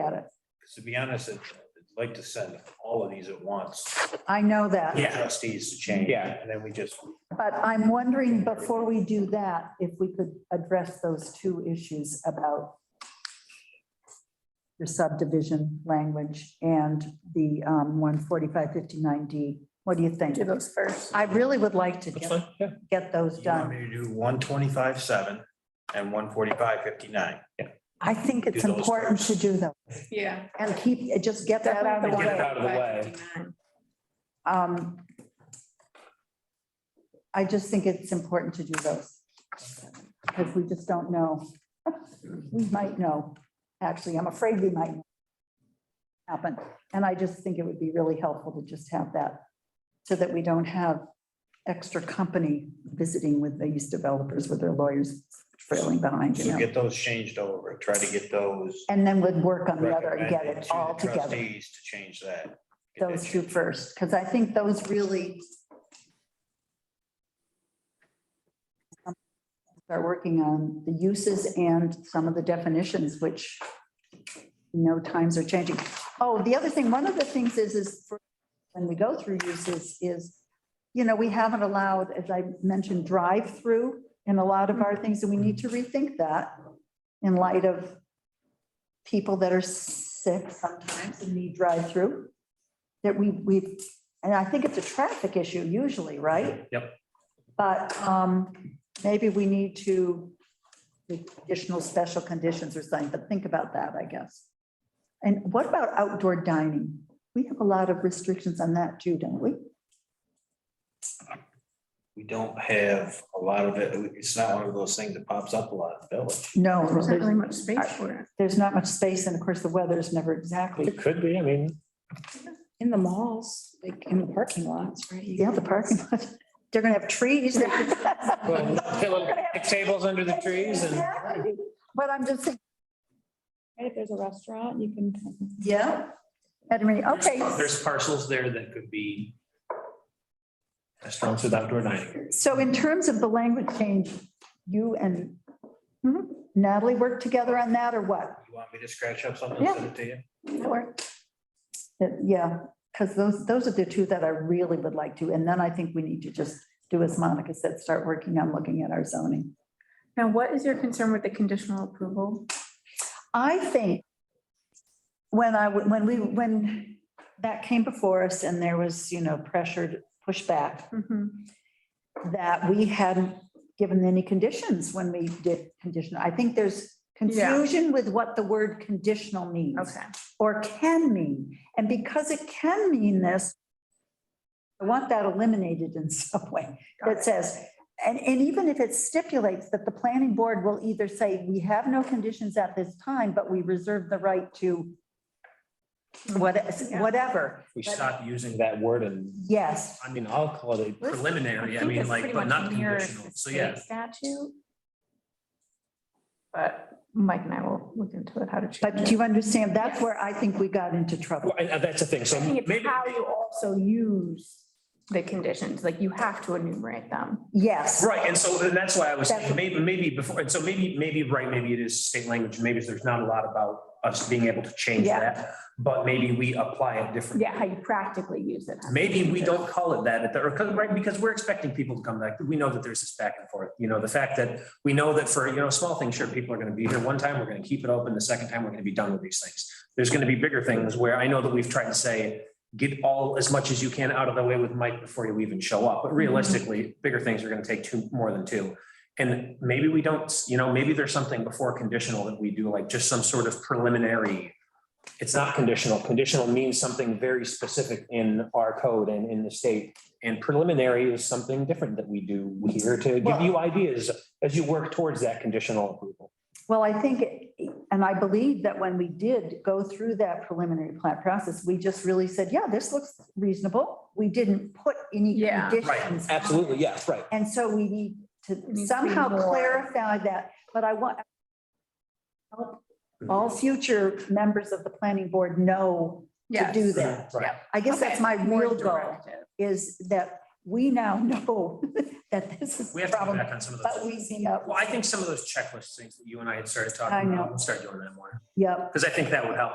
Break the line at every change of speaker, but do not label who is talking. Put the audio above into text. Because to be honest, I'd I'd like to send all of these at once.
I know that,
Yeah.
Trustees to change.
Yeah.
And then we just,
but I'm wondering before we do that, if we could address those two issues about your subdivision language and the um, one forty-five fifty-nine D. What do you think?
Do those first.
I really would like to
That's
get,
fine, yeah.
get those
you want me
done.
to do one twenty-five, seven and one forty-five, fifty-nine.
I think it's
Do those
important to do those
Yeah.
and keep, just get that out of the
Definitely the
way.
one. out of the way.
Um, I just think it's important to do those. Because we just don't know. We might know, actually, I'm afraid we might know happen. And I just think it would be really helpful to just have that, so that we don't have extra company visiting with these developers with their lawyers trailing behind, you
So
know.
get those changed over, try to get those.
And then we'd work on the other and get
recommended to
it
the
all together,
Trustees to change that. Get that
those two
changed.
first, because I think those really start working on the uses and some of the definitions, which you know times are changing. Oh, the other thing, one of the things is, is for- when we go through uses is, you know, we haven't allowed, as I mentioned, drive-through in a lot of our things, and we need to rethink that in light of people that are sick sometimes and need drive-through. That we, we, and I think it's a traffic issue usually, right?
Yep.
But, um, maybe we need to make additional special conditions or something, but think about that, I guess. And what about outdoor dining? We have a lot of restrictions on that too, don't we?
We don't have a lot of it. It's not one of those things that pops up a lot in the village.
No,
There's not really
there's-
much space for it.
there's not much space and of course the weather is never exactly.
It could be, I mean,
In the malls, like in the parking lots, right? You
Yeah, the parking lot, they're gonna have trees. They're
well,
gonna
pillow
have-
tables under the trees and.
Exactly. But I'm just thinking,
Right, if there's a restaurant, you can.
yeah, I mean, okay.
There's parcels there that could be restaurants with outdoor dining.
So in terms of the language change, you and Mm-hmm. Natalie work together on that or what?
You want me to scratch up something and send it to you?
Or- That- Uh, Yeah, because those, those are the two that I really would like to. And then I think we need to just do as Monica said, start working on looking at our zoning.
Now, what is your concern with the conditional approval?
I think when I, w- when we, when that came before us and there was, you know, pressured pushback,
Mhm.
that we hadn't given any conditions when we did conditional. I think there's
Yeah.
confusion with what the word conditional means
Okay.
or can mean. And because it can mean this, I want that eliminated in some way that says, and, and even if it stipulates that the planning board will either say, we have no conditions at this time, but we reserve the right to what, whatever.
We stop using that word and,
Yes,
I mean, I'll call it a preliminary, I
think
mean,
it's
like,
pretty
but
much
not
mirrors
conditional.
the
So, yeah.
state Statute. But Mike and I will look into it, how to change
but do
it.
you understand? That's where I think we got into trouble.
Well, and, uh, that's the thing, so
I think it's
maybe,
how you also use the conditions, like you have to enumerate them.
Yes.
right, and so and that's why I was
That's-
saying, maybe, maybe before, and so maybe, maybe, right, maybe it is state language, maybe there's not a lot about us being able to change
Yeah.
that, but maybe we apply it differently.
Yeah, how you practically use it.
Maybe we don't call it that, at the- or, right, because we're expecting people to come back. We know that there's this back and forth, you know, the fact that we know that for, you know, small things, sure, people are gonna be here one time, we're gonna keep it open, the second time, we're gonna be done with these things. There's gonna be bigger things where I know that we've tried to say, get all, as much as you can out of the way with Mike before you even show up, but realistically, bigger things are gonna take two, more than two. And maybe we don't, you know, maybe there's something before conditional that we do, like just some sort of preliminary it's not conditional. Conditional means something very specific in our code and in the state. And preliminary is something different that we do here to give you ideas as you work towards that conditional approval.
Well, I think, it- and I believe that when we did go through that preliminary plat process, we just really said, yeah, this looks reasonable. We didn't put any
Yeah.
conditions.
Absolutely, yeah, right.
And so we need
to be
to somehow
more.
clarify that, but I want help all future members of the planning board know to
Yes.
do that.
Right.
I guess that's my
Okay, more
real goal,
directive.
is that we now know that this is
We
the
have to go
problem,
back on some of
but
those.
we, you know,
Well, I think some of those checklist things that you and I had started
I
talking
know.
about, we'll start doing that more.
yep.
Because I think that would help.